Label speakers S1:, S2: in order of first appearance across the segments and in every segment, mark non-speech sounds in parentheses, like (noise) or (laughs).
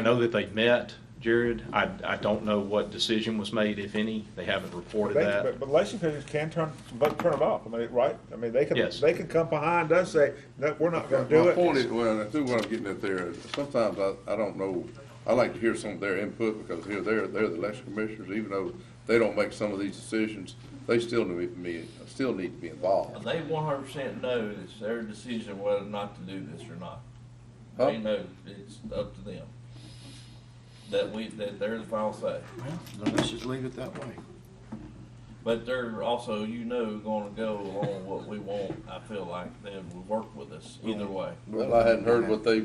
S1: I know that they've met, Jared. I, I don't know what decision was made, if any. They haven't reported
S2: They-
S1: that.
S2: But, but election officials can turn, but turn them off, I mean, right? I mean, they can,
S1: Yes.
S2: they can come behind us, say, no, we're not gonna do
S3: My point is,
S2: it.
S3: well, I think what I'm getting at there is, sometimes I, I don't know, I like to hear some of their input, because here, they're, they're the election commissioners, even though they don't make some of these decisions, they still need to be, still need to be involved.
S4: They one hundred percent know it's their decision whether or not to do this or not.
S3: Huh?
S4: They know it's up to them. That we, that they're the final say.
S5: Then let's just leave it that way.
S4: But they're also, you know, gonna go along what we want, I feel like, they will work with us
S5: Mm-hmm.
S4: either way.
S3: Well, I hadn't heard what they,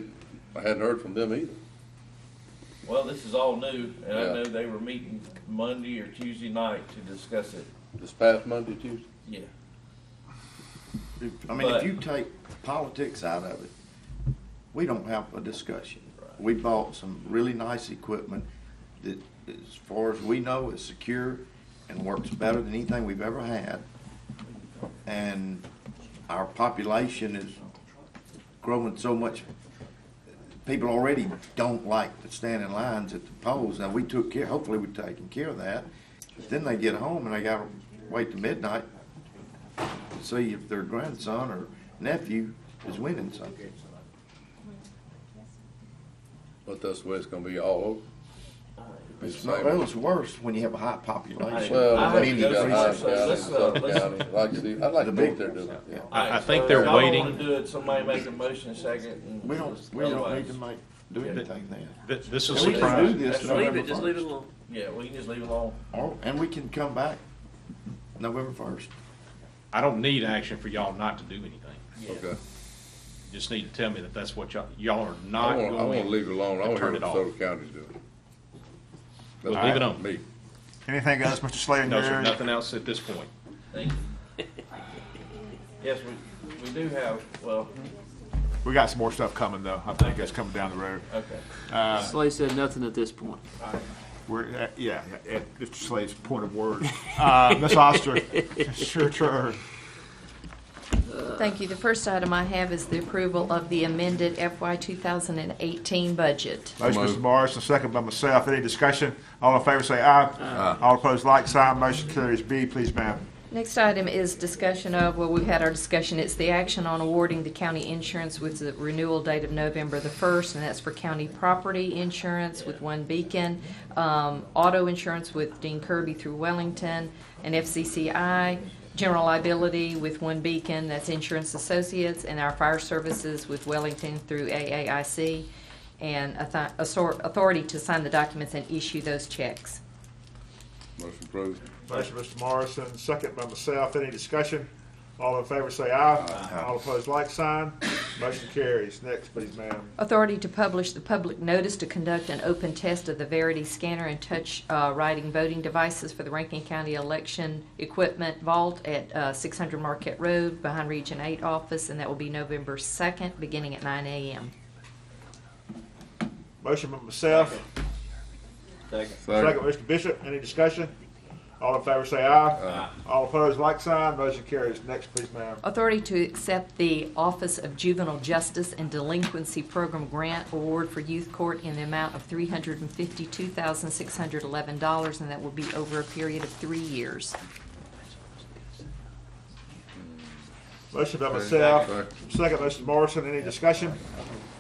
S3: I hadn't heard from them either.
S4: Well, this is all new, and I
S3: Yeah.
S4: know they were meeting Monday or Tuesday night to discuss it,
S3: This past Monday, Tuesday,
S4: yeah.
S5: I mean, if
S4: But-
S5: you take politics out of it, we don't have a discussion. We bought some really nice equipment that, as far as we know, is secure and works better than anything we've ever had. And our population is growing so much. People already don't like to stand in lines at the polls. Now, we took care, hopefully we've taken care of that. But Then they get home and they gotta wait till midnight to see if their grandson or nephew is winning something.
S3: but that's the way it's gonna be all over.
S5: It's not, well, it's worse when you have a high population.
S3: Well,
S4: I
S5: I
S4: have
S5: mean,
S4: to go
S3: got
S4: through
S3: Hyde
S4: some-
S3: County,
S4: let's, uh,
S3: Suffolk
S4: let's-
S3: County, like you see, I'd like
S5: The
S3: to know
S5: big-
S3: what they're doing.
S5: yeah.
S1: I- I
S4: So
S1: think
S4: if
S1: they're
S4: y'all wanna
S1: waiting.
S4: Do it, somebody make a motion second. and-
S5: We don't, we don't need to make, do
S4: Yeah.
S5: anything then.
S1: Th- This
S5: And
S1: is
S5: we can do
S1: surprise.
S5: this
S4: Just leave
S5: November
S6: Leave it, just leave it
S5: first.
S6: alone.
S4: Yeah, we can just leave it alone.
S5: Or, and we can come back November first.
S1: I don't need action for y'all not to do anything.
S4: Yeah.
S3: Okay.
S1: You Just need to tell me that that's what y'all, y'all are
S3: I
S1: not
S3: wanna, I wanna
S1: going.
S3: leave it alone, I
S1: to
S3: wanna hear
S1: turn
S3: what
S1: it off.
S3: Soda County's doing.
S1: We'll
S3: That's
S1: leave it
S3: fine
S1: on.
S3: with Me.
S7: Anything else, Mr. Slade?
S1: No, sir, nothing else at this point.
S4: Thank you. Yes, we, we do have, well,
S7: We got some more stuff coming, though. I think that's coming down the road.
S4: okay.
S6: Slay said nothing at this point.
S7: We're, uh, yeah, at Mr. Slade's point
S1: (laughs)
S7: of words. Uh, Ms. Oster, sure, sure.
S8: Thank you. The first item I have is the approval of the amended FY 2018 budget.
S7: Motion,
S3: Moved.
S7: Mr. Morris, and second by myself. Any discussion? All in favor, say aye. Aye. All opposed, like sign. Motion carries. B, please, ma'am.
S8: Next item is discussion of, well, we've had our discussion, it's the action on awarding the county insurance with the renewal date of November the 1st, and that's for county property insurance with One Beacon, um, auto insurance with Dean Kirby through Wellington, and FCCI, general liability with One Beacon, that's Insurance Associates, and our fire services with Wellington through AAIC, and author- author- authority to sign the documents and issue those checks.
S3: Motion approved.
S7: Motion, Mr. Morrison, second by myself. Any discussion? All in favor, say aye. All opposed, like sign. Motion carries. Next, please, ma'am.
S8: Authority to publish the public notice to conduct an open test of the Verity scanner and touch uh, writing voting devices for the Rankin County Election Equipment Vault at uh, 600 Marquette Road behind Region 8 office, and that will be November 2nd, beginning at 9 a.m.
S7: Motion by myself,
S4: Second.
S7: Second, Mr. Bishop, any discussion? All in favor, say aye. Aye. All opposed, like sign, motion carries. Next, please, ma'am.
S8: Authority to accept the Office of Juvenile Justice and Delinquency Program Grant Award for Youth Court in the amount of $352,611, and that will be over a period of three years.
S7: Motion by myself, second, Mr. Morrison, any discussion?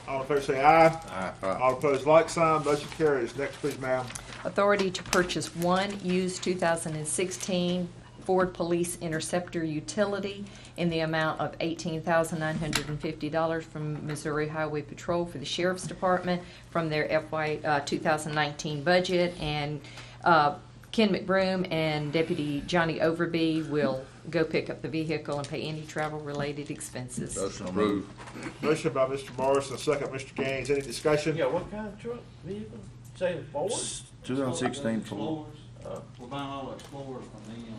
S7: All in favor, say aye. Aye. All opposed, like sign, motion carries. Next, please, ma'am.
S8: Authority to purchase one used 2016 Ford Police Interceptor utility in the amount of $18,950 from Missouri Highway Patrol for the Sheriff's Department from their FY uh, 2019 budget. And uh, Ken McBroom and Deputy Johnny Overby will go pick up the vehicle and pay any travel-related expenses.
S3: Motion approved.
S7: Motion by Mr. Morrison, second, Mr. Gaines, any discussion?
S4: Yeah, what kind of truck, vehicle? Say a Ford?
S5: 2016 Ford.
S9: Explorers, uh, we're buying all the Explorers from them, to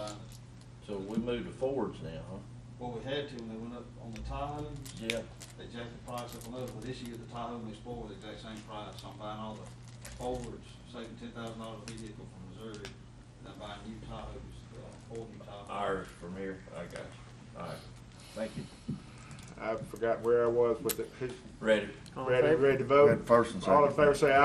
S9: buy the-
S4: So we moved to Fords now, huh?
S9: well, we had to, when they went up on the Tahoe,
S4: Yeah.
S9: they jacked the price up a little, but this year the Tahoe and the Explorer, the exact same price, I'm buying all the Fords, saving ten thousand dollar vehicle from Missouri, and I'm buying new Tahoes, uh, four new Tahoes.
S4: Ours from here, I got you. All right, thank you.
S7: I forgot where I was with it. Who's
S4: Ready.
S6: All in
S7: Ready,
S6: favor?
S7: ready to
S5: Go ahead,
S7: vote?
S5: first and second.
S7: All in favor, say